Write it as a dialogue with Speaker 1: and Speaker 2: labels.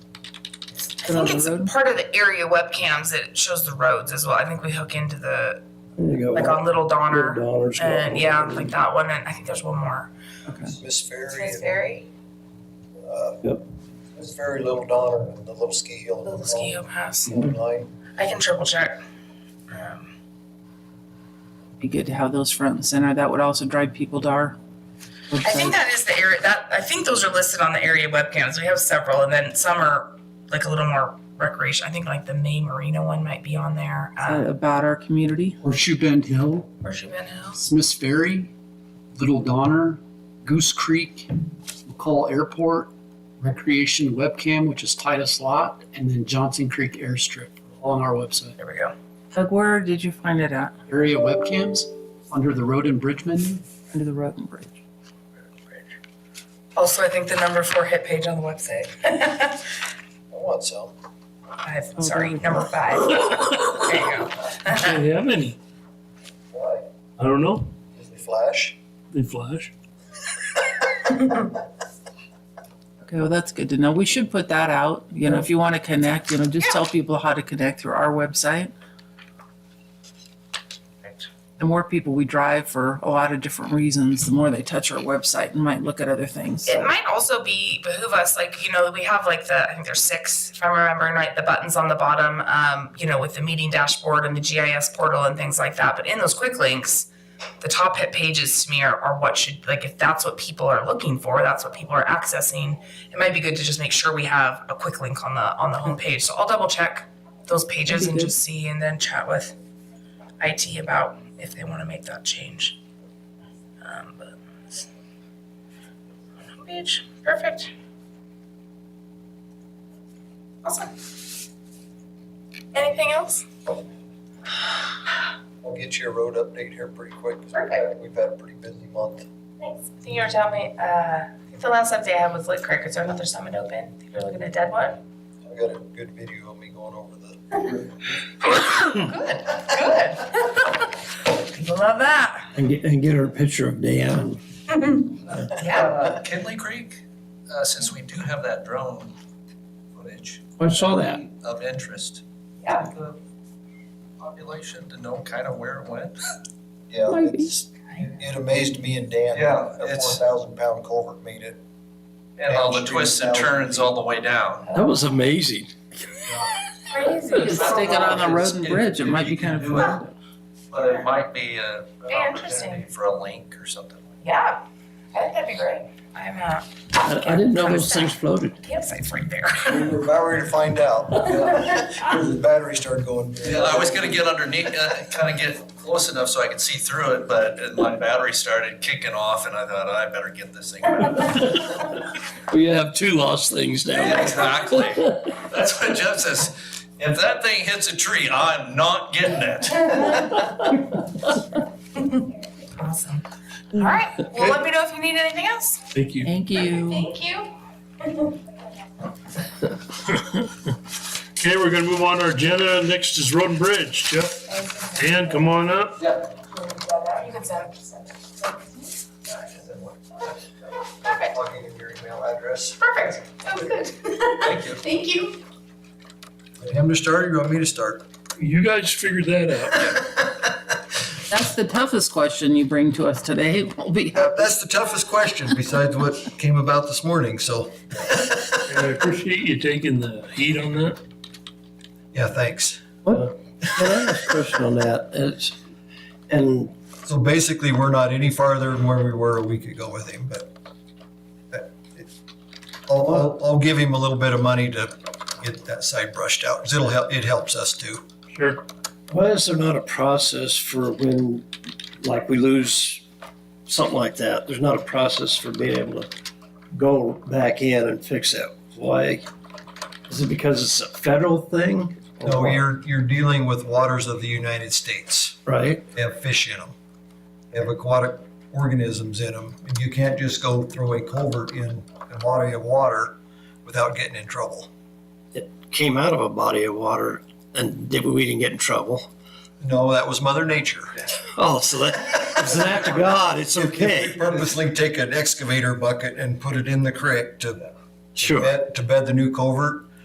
Speaker 1: I
Speaker 2: direction on
Speaker 1: think
Speaker 2: the
Speaker 1: it's
Speaker 2: road?
Speaker 1: part of the area webcams that shows the roads as well. I think we hook into the,
Speaker 2: There you go.
Speaker 1: like on Little Donner.
Speaker 2: Dollars.
Speaker 1: And yeah, like that one, and I think there's one more.
Speaker 2: Okay.
Speaker 3: Miss Ferry.
Speaker 1: Miss
Speaker 3: and,
Speaker 1: Ferry,
Speaker 3: uh,
Speaker 2: Yep.
Speaker 3: Miss Ferry, Little Donner, and the Little Ski Hill.
Speaker 1: Little Ski Hill Pass.
Speaker 3: Line.
Speaker 1: I can triple check. Um,
Speaker 2: Be good to have those front and center. That would also drive people to our
Speaker 1: I think
Speaker 2: website.
Speaker 1: that is the area, that, I think those are listed on the area webcams. We have several, and then some are like a little more recreation. I think like the May Marina one might be on there.
Speaker 2: Uh,
Speaker 1: Uh,
Speaker 2: About our community.
Speaker 4: Horseshoe Bend Hill,
Speaker 1: Horseshoe Bend Hills.
Speaker 4: Smith's Ferry, Little Donner, Goose Creek, McCall Airport, Recreation Webcam, which is Titus Lot, and then Johnson Creek Airstrip, all on our website.
Speaker 1: There we go.
Speaker 2: Doug, where did you find it at?
Speaker 4: Area webcams under the road and bridge menu.
Speaker 2: Under the road and bridge.
Speaker 1: Also, I think the number four hit page on the website.
Speaker 3: I want some.
Speaker 1: Five,
Speaker 2: Oh,
Speaker 1: sorry,
Speaker 2: there we go.
Speaker 1: number five. There you go.
Speaker 5: They have any.
Speaker 3: Why?
Speaker 5: I don't know.
Speaker 3: Disney Flash.
Speaker 5: They flash.
Speaker 2: Okay, well, that's good to know. We should put that out. You know, if you want to connect, you know, just
Speaker 1: Yeah.
Speaker 2: tell people how to connect through our website.
Speaker 1: Perfect.
Speaker 2: The more people we drive for a lot of different reasons, the more they touch our website and might look at other things.
Speaker 1: It might also be behoove us, like, you know, we have like the, I think there's six, if I'm remembering right, the buttons on the bottom, um, you know, with the meeting dashboard and the GIS portal and things like that. But in those quick links, the top hit pages to me are, are what should, like, if that's what people are looking for, that's what people are accessing. It might be good to just make sure we have a quick link on the, on the homepage. So I'll double check those pages
Speaker 2: That'd be
Speaker 1: and
Speaker 2: good.
Speaker 1: just see and then chat with IT about if they want to make that change. Um, but it's- homepage, perfect. Awesome. Anything else?
Speaker 3: We'll get you a road update here pretty quick. 'cause we've
Speaker 1: Perfect.
Speaker 3: had- We've had a pretty busy month.
Speaker 1: Thanks. I think you were telling me, uh, I think the last update I had was Lit Creek. Is there another summit open? I think you're looking at dead one.
Speaker 3: I got a good video of me going over the
Speaker 1: Good, good. People love that.
Speaker 6: And get, and get her a picture of Dan.
Speaker 1: Yeah.
Speaker 3: Uh, Kinley Creek, uh, since we do have that drone footage
Speaker 6: I saw that.
Speaker 3: of interest.
Speaker 1: Yeah.
Speaker 3: the Population to know kind of where it went. Yeah, it's, it amazed me and Dan.
Speaker 7: Yeah,
Speaker 3: A four
Speaker 7: it's-
Speaker 3: thousand pound culvert made it.
Speaker 7: And all the twists and turns all the way down.
Speaker 6: That was amazing.
Speaker 1: Crazy.
Speaker 2: Just take it on the road and bridge. It might be kind of fun.
Speaker 7: But it might be a, an
Speaker 1: Yeah, interesting.
Speaker 7: opportunity for a link or something.
Speaker 1: Yeah, I think that'd be great. I'm, uh,
Speaker 6: I, I didn't know those things floated.
Speaker 1: campsite's right there.
Speaker 3: We were about ready to find out. Because the battery started going. dead.
Speaker 7: Yeah, I was gonna get underneath, uh, kinda get close enough so I could see through it, but uh, my battery started kicking off and I thought, I better get this thing.
Speaker 6: We have two lost things
Speaker 7: Yeah,
Speaker 6: now.
Speaker 7: exactly. That's what Jeff says. If that thing hits a tree, I'm not getting it.
Speaker 1: Awesome. All right, well, let me know if you need anything else.
Speaker 5: Thank you.
Speaker 2: Thank you.
Speaker 1: Thank you.
Speaker 5: Okay, we're gonna move on to our agenda. Next is Road and Bridge. Jeff, Dan, come on up.
Speaker 1: You can send, send. Perfect,
Speaker 3: Plugging in your email address.
Speaker 1: perfect. Oh, good.
Speaker 7: Thank you.
Speaker 1: Thank you.
Speaker 3: Him to start or you want me to start?
Speaker 5: You guys figured that out.
Speaker 2: That's the toughest question you bring to us today. Will be
Speaker 3: That- Uh, That's the toughest question besides what came about this morning, so,
Speaker 5: And I appreciate you taking the heat on that.
Speaker 3: yeah, thanks.
Speaker 6: What, can I ask a question on that? It's, and
Speaker 3: So basically, we're not any farther than where we were a week ago with him, but that- it- I'll, I'll, I'll give him a little bit of money to get that side brushed out, 'cause it'll help, it helps us too.
Speaker 5: Sure.
Speaker 6: why is there not a process for when, like, we lose something like that? There's not a process for being able to go back in and fix it. Why? Is it because it's a federal thing?
Speaker 3: No, you're, you're dealing with waters of the United States.
Speaker 6: Right?
Speaker 3: They have fish in them. They have aquatic organisms in them. And you can't just go throw a culvert in a body of water without getting in trouble.
Speaker 6: Came out of a body of water and did, we didn't get in trouble.
Speaker 3: No, that was Mother Nature.
Speaker 6: Oh, so that, it's an act of God, it's
Speaker 3: If we
Speaker 6: okay.
Speaker 3: purposely take an excavator bucket and put it in the creek to
Speaker 6: Sure.
Speaker 3: bed, to bed the new culvert,